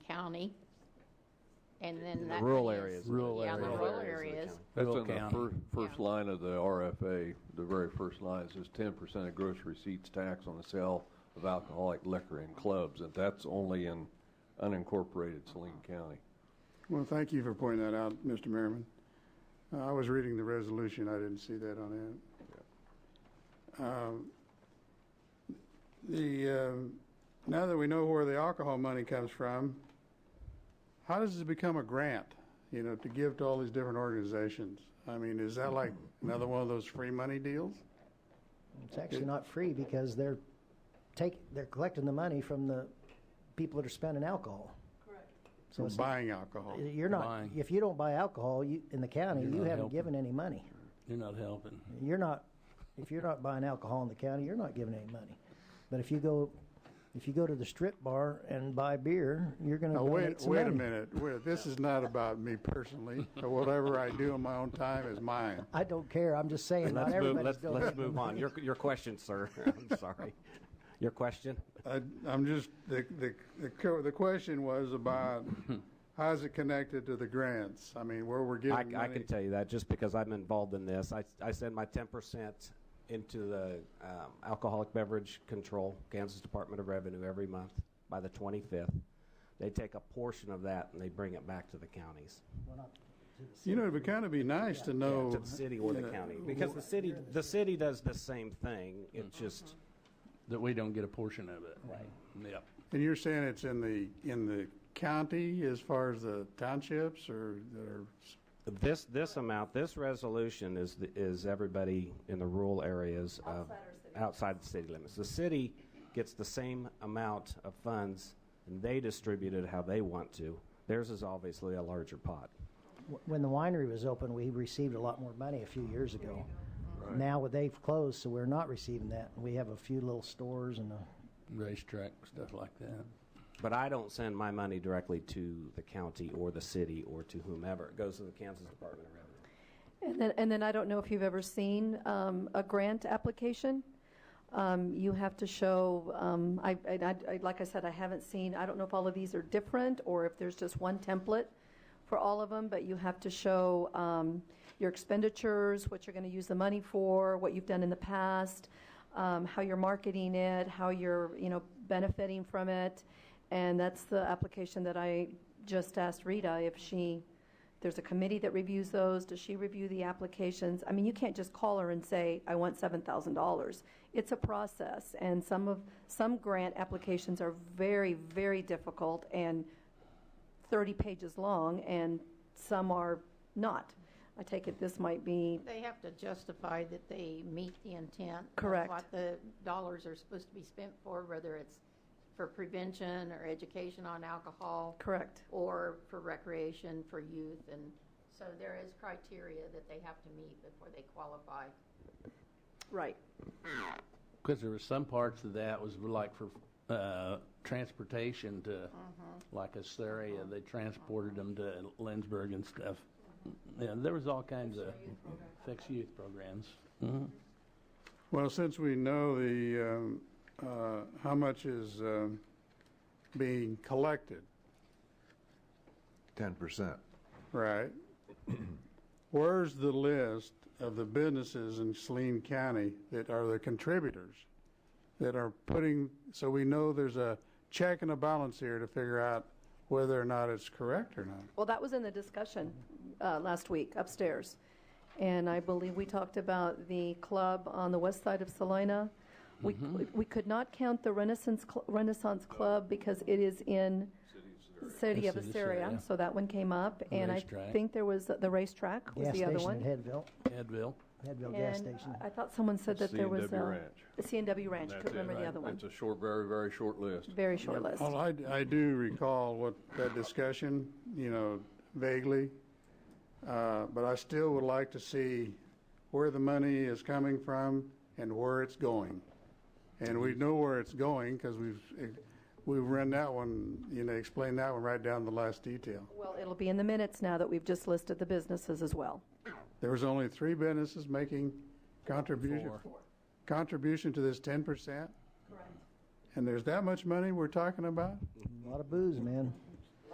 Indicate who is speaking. Speaker 1: county, and then
Speaker 2: In the
Speaker 1: that
Speaker 2: rural
Speaker 1: is-
Speaker 2: areas.
Speaker 3: Rural
Speaker 1: Yeah, the
Speaker 3: areas.
Speaker 1: rural
Speaker 2: Rural
Speaker 1: areas.
Speaker 2: areas of the county.
Speaker 4: That's
Speaker 3: Rural
Speaker 4: in the
Speaker 3: county.
Speaker 4: first, first
Speaker 1: Yeah.
Speaker 4: line of the RFA, the very first line, it says ten percent of gross receipts tax on the sale of alcoholic liquor in clubs, and that's only in unincorporated Saline County.
Speaker 5: Well, thank you for pointing that out, Mr. Merriman. Uh, I was reading the resolution, I didn't see that on it. Um, The, um, now that we know where the alcohol money comes from, how does this become a grant, you know, to give to all these different organizations? I mean, is that like another one of those free money deals?
Speaker 6: It's actually not free because they're take, they're collecting the money from the people that are spending alcohol.
Speaker 5: So
Speaker 6: it's-
Speaker 5: buying alcohol?
Speaker 6: You're not,
Speaker 3: Buying.
Speaker 6: if you don't buy alcohol you, in the county,
Speaker 3: You're
Speaker 6: you
Speaker 3: not
Speaker 6: haven't
Speaker 3: helping.
Speaker 6: given any money.
Speaker 3: You're not helping.
Speaker 6: You're not, if you're not buying alcohol in the county, you're not giving any money. But if you go, if you go to the strip bar and buy beer, you're gonna
Speaker 5: Now,
Speaker 6: donate
Speaker 5: wait,
Speaker 6: some
Speaker 5: wait a
Speaker 6: money.
Speaker 5: minute, wait, this is not about me personally. Whatever I do in my own time is mine.
Speaker 6: I don't care, I'm just saying, not
Speaker 2: Let's move,
Speaker 6: everybody's
Speaker 2: let's, let's
Speaker 6: donating.
Speaker 2: move on. Your, your question, sir. I'm sorry. Your question?
Speaker 5: I, I'm just, the, the, the, co- the question was about how's it connected to the grants? I mean, where we're
Speaker 2: I,
Speaker 5: getting
Speaker 2: I
Speaker 5: money.
Speaker 2: can tell you that just because I'm involved in this. I, I send my 10% into the um, Alcoholic Beverage Control, Kansas Department of Revenue, every month by the 25th. They take a portion of that and they bring it back to the counties.
Speaker 5: You know, it would kind of be nice to know.
Speaker 2: to the city or the
Speaker 5: you know,
Speaker 2: county. Because the city, the city does the same thing. It just,
Speaker 3: That we don't get a portion of it. Right. Yep.
Speaker 5: And you're saying it's in the, in the county as far as the townships or, or
Speaker 2: this, this amount, this resolution is, the- is everybody in the rural areas of, outside the city limits. The city gets the same amount of funds and they distribute it how they want to. Theirs is obviously a larger pot.
Speaker 6: When the winery was open, we received a lot more money a few years ago. Now they've closed, so we're not receiving that. We have a few little stores and a
Speaker 3: Racetrack, stuff like that.
Speaker 2: But I don't send my money directly to the county or the city or to whomever. It goes to the Kansas Department of Revenue.
Speaker 7: And then, and then I don't know if you've ever seen um, a grant application. Um, You have to show, um, I, and I- I- like I said, I haven't seen, I don't know if all of these are different or if there's just one template for all of them, but you have to show um, your expenditures, what you're going to use the money for, what you've done in the past, um, how you're marketing it, how you're, you know, benefiting from it. And that's the application that I just asked Rita if she there's a committee that reviews those. Does she review the applications? I mean, you can't just call her and say, I want seven thousand dollars. It's a process, and some of, some grant applications are very, very difficult and thirty pages long, and some are not. I take it this might be,
Speaker 1: They have to justify that they meet the intent. of
Speaker 7: Correct.
Speaker 1: What the dollars are supposed to be spent for, whether it's for prevention or education on alcohol.
Speaker 7: correct,
Speaker 1: Or for recreation for youth, and so there is criteria that they have to meet before they qualify.
Speaker 7: right.
Speaker 3: Because there were some parts of that was like for uh, transportation to, like Assyria, they transported them to Lindsberg and stuff. Yeah, there was all kinds of fixed youth programs. Mm-hmm.
Speaker 5: Well, since we know the, um, uh, how much is um, being collected,
Speaker 4: Ten percent.
Speaker 5: right? Where's the list of the businesses in Saline County that are the contributors that are putting, so we know there's a check and a balance here to figure out whether or not it's correct or not?
Speaker 7: Well, that was in the discussion uh, last week upstairs. And I believe we talked about the club on the west side of Salina. We, we could not count the Renaissance, Cl- Renaissance Club because it is in city of
Speaker 3: City of
Speaker 7: Assyria.
Speaker 3: Assyria.
Speaker 7: So that one came up. And I
Speaker 3: Racetrack.
Speaker 7: think there was, the racetrack was
Speaker 6: gas
Speaker 7: the other
Speaker 6: station at
Speaker 7: one.
Speaker 6: Headville,
Speaker 3: Edville.
Speaker 6: Headville gas
Speaker 7: And uh,
Speaker 6: station.
Speaker 7: I thought someone said that there was.
Speaker 4: C&W
Speaker 7: uh,
Speaker 4: Ranch.
Speaker 7: the C&W Ranch, I
Speaker 4: That's
Speaker 7: couldn't
Speaker 4: it.
Speaker 7: remember the other one.
Speaker 4: It's a short, very, very short list.
Speaker 7: Very short list.
Speaker 5: Well, I, I do recall what, that discussion, you know, vaguely, uh, but I still would like to see where the money is coming from and where it's going. And we know where it's going because we've, we've run that one, you know, explained that one right down to the last detail.
Speaker 7: Well, it'll be in the minutes now that we've just listed the businesses as well.
Speaker 5: There was only three businesses making contribution, contribution to this ten percent? Correct. And there's that much money we're talking about?
Speaker 6: A lot of booze, man.